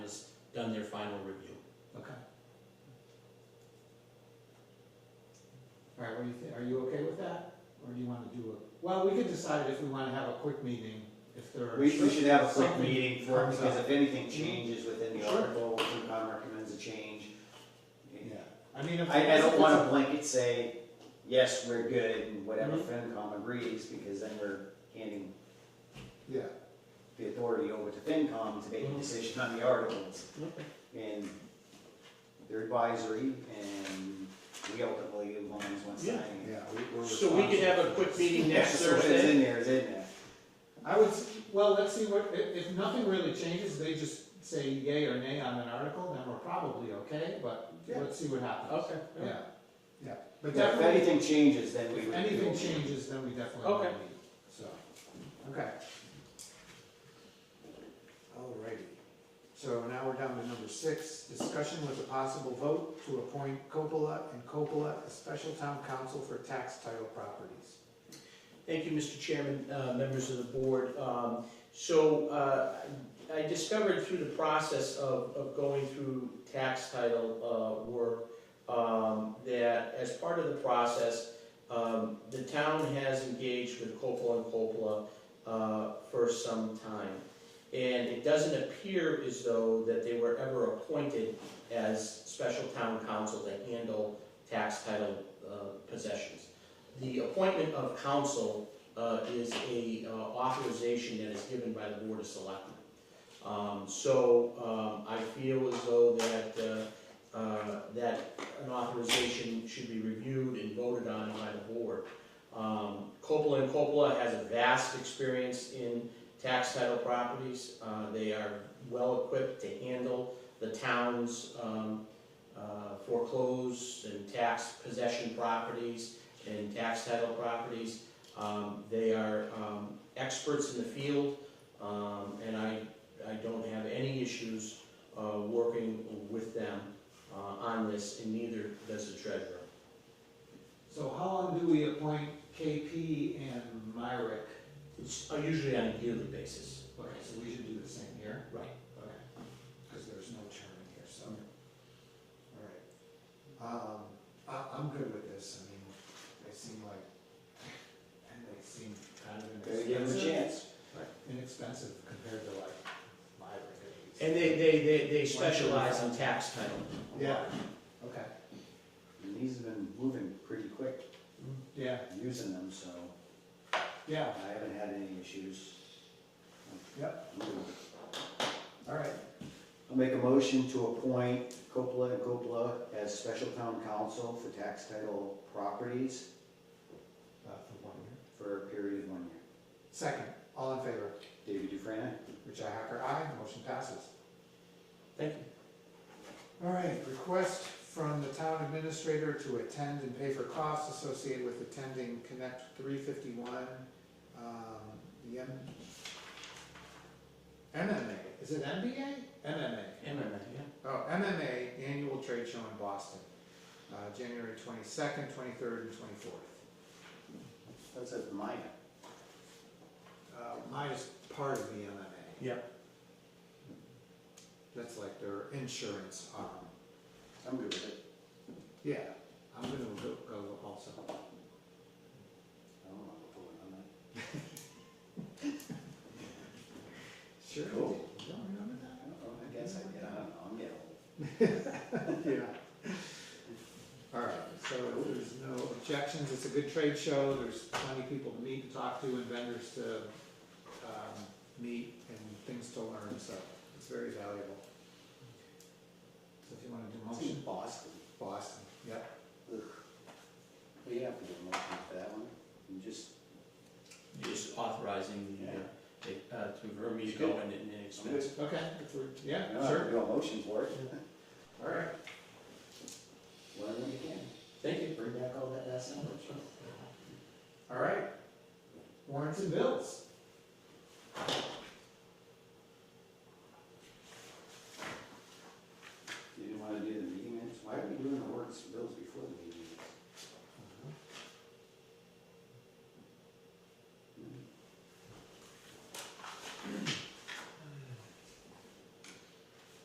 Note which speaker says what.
Speaker 1: done their final review.
Speaker 2: Okay. All right, what do you think, are you okay with that, or do you wanna do a, well, we could decide if we wanna have a quick meeting, if there are.
Speaker 3: We, we should have a quick
Speaker 2: something
Speaker 3: meeting for it,
Speaker 2: comes
Speaker 3: because
Speaker 2: up.
Speaker 3: if anything changes within the
Speaker 2: Sure.
Speaker 3: article, FinCom recommends a change.
Speaker 2: Yeah, I mean, if.
Speaker 3: I, I don't wanna blanket say, yes, we're good, and whatever
Speaker 2: Mm-hmm.
Speaker 3: FinCom agrees, because then we're handing
Speaker 2: Yeah,
Speaker 3: the authority over to FinCom to make a
Speaker 2: Mm-hmm.
Speaker 1: Mhm.
Speaker 3: decision on the articles.
Speaker 1: Okay.
Speaker 3: And they're advisory, and we ultimately, as long as one
Speaker 1: Yeah.
Speaker 3: signing it.
Speaker 2: yeah, we, we're.
Speaker 1: So we could have a
Speaker 2: responsible.
Speaker 1: quick meeting
Speaker 3: Yeah,
Speaker 1: next
Speaker 3: so if it's
Speaker 1: Thursday?
Speaker 3: in there, it's in there.
Speaker 2: I would, s- well, let's see what, if, if nothing really changes, they just say yay or nay on an article, then we're probably okay, but
Speaker 3: Yeah.
Speaker 2: let's see what happens.
Speaker 1: Okay.
Speaker 2: Yeah, yeah, but
Speaker 3: Yeah, If
Speaker 2: definitely,
Speaker 3: anything changes, then we
Speaker 2: if
Speaker 3: would.
Speaker 2: anything changes, then we definitely
Speaker 1: Okay.
Speaker 2: will meet, so, okay. Alrighty, so now we're down to number six, discussion with a possible vote to appoint Coppola and Coppola as special town council for tax title properties.
Speaker 1: Thank you, Mr. Chairman, uh, members of the board. Um, So uh, I discovered through the process of of going through tax title uh, work um, that as part of the process, um, the town has engaged with Coppola and Coppola uh, for some time. And it doesn't appear as though that they were ever appointed as special town council to handle tax title uh, possessions. The appointment of counsel uh, is a uh, authorization that is given by the Board of Selectmen. Um, So um, I feel as though that, uh, uh, that an authorization should be reviewed and voted on by the board. Um, Coppola and Coppola has a vast experience in tax title properties. Uh, They are well-equipped to handle the town's um, uh, foreclosed and tax possession properties and tax title properties. Um, They are um, experts in the field, um, and I, I don't have any issues uh, working with them uh, on this, and neither does the treasurer.
Speaker 2: So how long do we appoint KP and Myrick?
Speaker 1: It's usually on a yearly basis.
Speaker 2: Okay, so we should do the same here,
Speaker 1: Right.
Speaker 2: okay, because there's no term in here, so. All right. Um, I, I'm good with this, I mean, they seem like, and they seem kind of
Speaker 3: Gotta give them a
Speaker 2: inexpensive.
Speaker 3: chance.
Speaker 2: Right, Inexpensive compared to like Myrick at least.
Speaker 1: And they, they, they, they specialize in tax title.
Speaker 2: Yeah, okay,
Speaker 3: And these have been moving pretty quick,
Speaker 2: yeah,
Speaker 3: using them, so
Speaker 2: yeah,
Speaker 3: I haven't had any issues.
Speaker 2: yep, all right,
Speaker 3: I'll make a motion to appoint Coppola and Coppola as special town counsel for tax title properties
Speaker 2: uh, for one year.
Speaker 3: for a period of one year.
Speaker 2: Second, all in favor,
Speaker 3: David Dufresne?
Speaker 2: Richi Hacker, aye, motion passes.
Speaker 1: Thank you.
Speaker 2: All right, request from the town administrator to attend and pay for costs associated with attending Connect three fifty-one, um, the M. MMA, is it MBA? MMA,
Speaker 1: MMA,
Speaker 2: oh, MMA Annual Trade Show in Boston, uh, January twenty-second, twenty-third, and twenty-fourth.
Speaker 3: That's at Maya.
Speaker 2: Uh, mine is part of the MMA,
Speaker 1: yeah.
Speaker 2: that's like their insurance arm.
Speaker 3: I'm good with it.
Speaker 2: Yeah, I'm gonna go, go also.
Speaker 3: I don't know if I'll vote on that.
Speaker 2: Sure.
Speaker 3: Cool.
Speaker 2: You don't remember that?
Speaker 3: I don't know, I guess I, yeah, I don't know, I'm getting old.
Speaker 2: Yeah. All right, so if there's no objections, it's a good trade show, there's plenty of people to meet and talk to and vendors to, um, meet and things to learn, so it's very valuable. So if you wanna do
Speaker 3: It's in
Speaker 2: motion,
Speaker 3: Boston.
Speaker 2: Boston, yep,
Speaker 3: Ugh. We have to get a motion for that one. You just,
Speaker 1: Just authorizing
Speaker 3: yeah.
Speaker 1: the, uh, to Vermees
Speaker 3: Good.
Speaker 1: go in and expense.
Speaker 2: okay, if we're-
Speaker 3: I
Speaker 2: yeah,
Speaker 3: don't have to
Speaker 2: sure.
Speaker 3: do a motion for it.
Speaker 2: All right.
Speaker 3: Learn what you can.
Speaker 1: Thank you.
Speaker 3: Bring back all that ass sandwich.
Speaker 2: All right. Warrants and bills.
Speaker 3: You didn't wanna do the meeting minutes? Why are we doing the words bills before the meeting? Hmm.